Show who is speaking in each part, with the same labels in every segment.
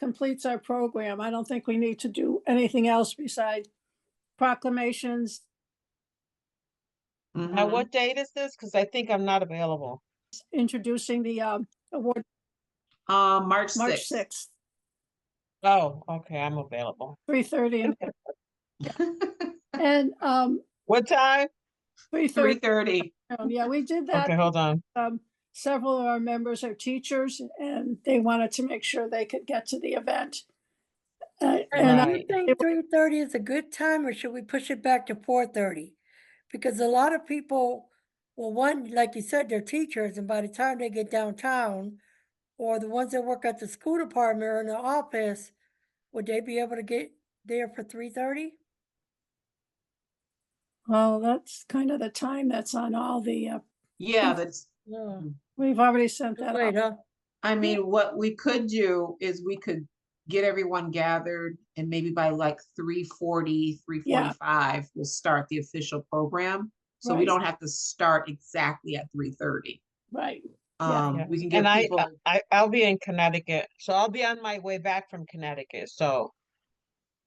Speaker 1: completes our program. I don't think we need to do anything else besides proclamations.
Speaker 2: Now,
Speaker 3: Mhm.
Speaker 2: Uh, what date is this? Because I think I'm not available.
Speaker 1: introducing the um, award,
Speaker 3: Uh, March
Speaker 1: March
Speaker 3: sixth.
Speaker 1: sixth,
Speaker 2: Oh, okay, I'm available.
Speaker 1: three thirty, and um,
Speaker 2: What time?
Speaker 1: three
Speaker 3: Three
Speaker 1: thirty. um,
Speaker 3: thirty.
Speaker 1: Yeah, we did
Speaker 2: Okay,
Speaker 1: that.
Speaker 2: hold on.
Speaker 1: Um, several of our members are teachers, and they wanted to make sure they could get to the event. Uh, and I-
Speaker 4: Do you
Speaker 2: Right.
Speaker 4: think three thirty is a good time or should we push it back to four thirty? Because a lot of people, well, one, like you said, they're teachers and by the time they get downtown or the ones that work at the school department or in the office, would they be able to get there for three thirty?
Speaker 1: well, that's kind of the time that's on all the, uh,
Speaker 3: Yeah, that's,
Speaker 4: No.
Speaker 1: we've already sent that out.
Speaker 4: Wait, huh?
Speaker 3: I mean, what we could do is we could get everyone gathered and maybe by like three forty, three forty-five, we'll start the official program. So we
Speaker 1: Right.
Speaker 3: don't have to start exactly at three thirty.
Speaker 1: Right, Yeah.
Speaker 3: Um,
Speaker 2: Yeah.
Speaker 3: we can give
Speaker 2: And I, uh,
Speaker 3: people,
Speaker 2: I, I'll be in Connecticut, so I'll be on my way back from Connecticut, so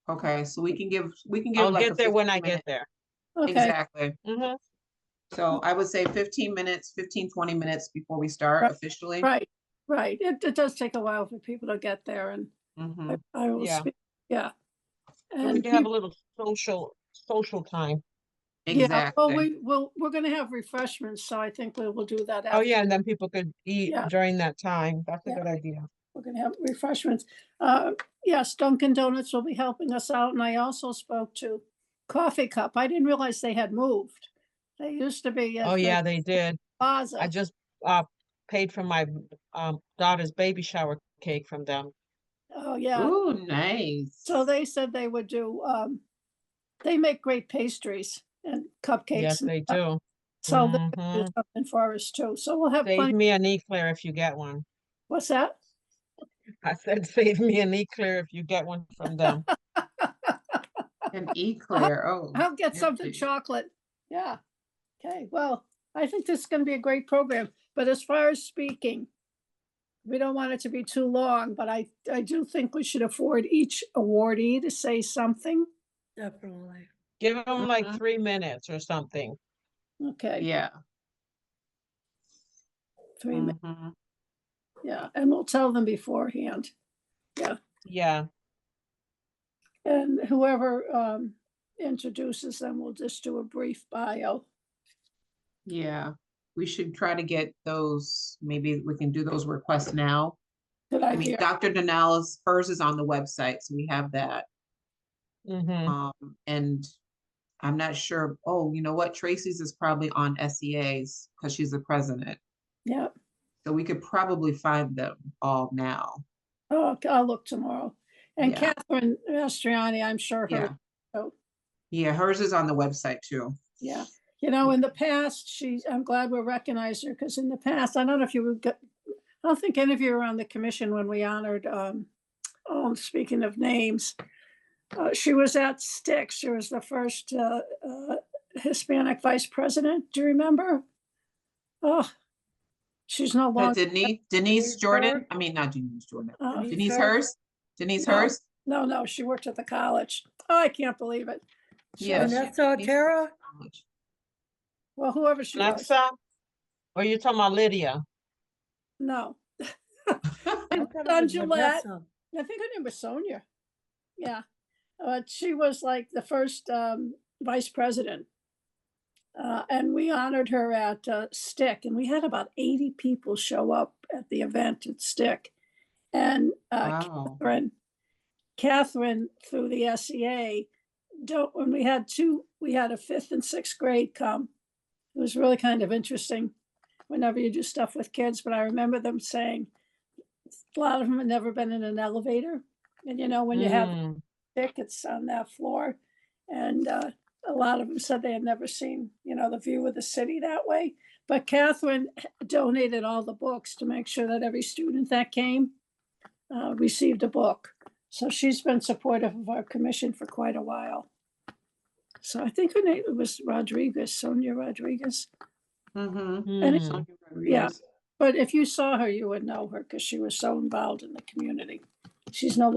Speaker 3: okay, so we can give, we can give
Speaker 2: I'll
Speaker 3: like a
Speaker 2: get there when I
Speaker 3: 15
Speaker 2: get there.
Speaker 3: minute-
Speaker 1: okay,
Speaker 3: Exactly.
Speaker 2: Mhm.
Speaker 3: So I would say fifteen minutes, 15, 20 minutes before we start
Speaker 1: Right,
Speaker 3: officially.
Speaker 1: right, right. It, it does take a while for people to get there and
Speaker 3: Mhm.
Speaker 1: I- I will
Speaker 2: Yeah.
Speaker 1: speak, yeah.
Speaker 2: So We
Speaker 1: And
Speaker 2: can have a
Speaker 1: peop-
Speaker 2: little social, social time.
Speaker 1: yeah, well,
Speaker 3: Exactly.
Speaker 1: we, well, we're gonna have refreshments, so I think we will do that.
Speaker 2: Oh,
Speaker 1: after.
Speaker 2: yeah, and then people could eat
Speaker 1: Yeah.
Speaker 2: during that time. That's a
Speaker 1: Yeah.
Speaker 2: good idea.
Speaker 1: We're gonna have refreshments. Uh, yes, Dunkin' Donuts will be helping us out, and I also spoke to Coffee Cup. I didn't realize they had moved. They used to be. at
Speaker 2: Oh,
Speaker 1: the
Speaker 2: yeah, they did. I
Speaker 1: Plaza.
Speaker 2: just, uh, paid for my, um, daughter's baby shower cake from them.
Speaker 1: Oh, yeah.
Speaker 3: Ooh, nice.
Speaker 1: So they said they would do, um, they make great pastries and cupcakes.
Speaker 2: Yes,
Speaker 1: and
Speaker 2: they
Speaker 1: stuff.
Speaker 2: do.
Speaker 1: So they do
Speaker 2: Mhm.
Speaker 1: something for us too. So we'll have
Speaker 2: Save
Speaker 1: plenty,
Speaker 2: me an eclair if you get one.
Speaker 1: what's that?
Speaker 2: I said, save me an eclair if you get one from them.
Speaker 3: An eclair, oh.
Speaker 1: I'll get
Speaker 3: yes,
Speaker 1: something
Speaker 3: please.
Speaker 1: chocolate. Yeah. Okay, well, I think this is gonna be a great program, but as far as speaking, we don't want it to be too long, but I, I do think we should afford each awardee to say something.
Speaker 4: Definitely.
Speaker 2: Give them like
Speaker 1: Mm-hmm.
Speaker 3: Mhm.
Speaker 2: three minutes or something.
Speaker 1: Okay,
Speaker 3: Yeah.
Speaker 1: three, min-
Speaker 3: mhm.
Speaker 1: yeah, and we'll tell them beforehand.
Speaker 2: Yeah,
Speaker 1: And whoever um, introduces them will just do a brief bio.
Speaker 3: Yeah, we should try to get those, maybe we can do those requests now.
Speaker 1: Good
Speaker 3: I mean,
Speaker 1: idea.
Speaker 3: Dr. Denala's, hers is on the website, so we have that.
Speaker 2: hmm
Speaker 3: Um, and I'm not sure, oh, you know what, Tracy's is probably on SEA's because she's the president.
Speaker 1: Yeah,
Speaker 3: So we could probably find them all now.
Speaker 1: oh, I'll look tomorrow. And
Speaker 3: Yeah.
Speaker 1: Catherine Mastriani, I'm sure
Speaker 3: Yeah.
Speaker 1: her, oh.
Speaker 3: Yeah, hers is on the website too.
Speaker 1: yeah. You know, in the past, she, I'm glad we recognized her because in the past, I don't know if you would get, I don't think any of you were on the commission when we honored, um, oh, speaking of names. Uh, she was at Styx. She was the first uh, uh, Hispanic vice president. Do you remember? Oh, she's no
Speaker 3: But
Speaker 1: longer.
Speaker 3: Denise, Denise
Speaker 4: Denise
Speaker 3: Jordan,
Speaker 4: Herr?
Speaker 3: I mean, not Denise Jordan,
Speaker 1: uh,
Speaker 4: Denise
Speaker 3: Denise
Speaker 4: Herr?
Speaker 3: Hurst, Denise
Speaker 1: No.
Speaker 3: Hurst?
Speaker 1: No, no, she worked at the college. Oh, I can't believe it. She
Speaker 3: Yeah,
Speaker 1: was-
Speaker 3: she-
Speaker 4: Vanessa
Speaker 3: Denise Hurst
Speaker 4: Otero?
Speaker 3: College.
Speaker 1: Well, whoever she was,
Speaker 2: Alexa, or you oh, talking about Lydia?
Speaker 1: no.
Speaker 4: I
Speaker 1: And
Speaker 4: thought it
Speaker 1: Don
Speaker 4: was
Speaker 1: Gillette.
Speaker 4: Vanessa.
Speaker 1: I think her name was Sonia. Yeah. Uh, she was like the first um, vice president. Uh, and we honored her at uh, Stick, and we had about 80 people show up at the event at Stick. And uh,
Speaker 3: Wow.
Speaker 1: Catherine, Catherine through the SEA, don't, when we had two, we had a fifth and sixth grade come. It was really kind of interesting whenever you do stuff with kids, but I remember them saying, a lot of them had never been in an elevator. And you know, when you have
Speaker 2: Mm,
Speaker 1: tickets on that floor. And uh, a lot of them said they had never seen, you know, the view of the city that way. But Catherine h- donated all the books to make sure that every student that came uh, received a book. So she's been supportive of our commission for quite a while. So I think her name was Rodriguez, Sonia Rodriguez.
Speaker 3: Mm-hmm.
Speaker 1: it's-
Speaker 2: mm.
Speaker 3: Sonia Rodriguez.
Speaker 1: But if you saw her, you would know her because she was so involved in the community. She's no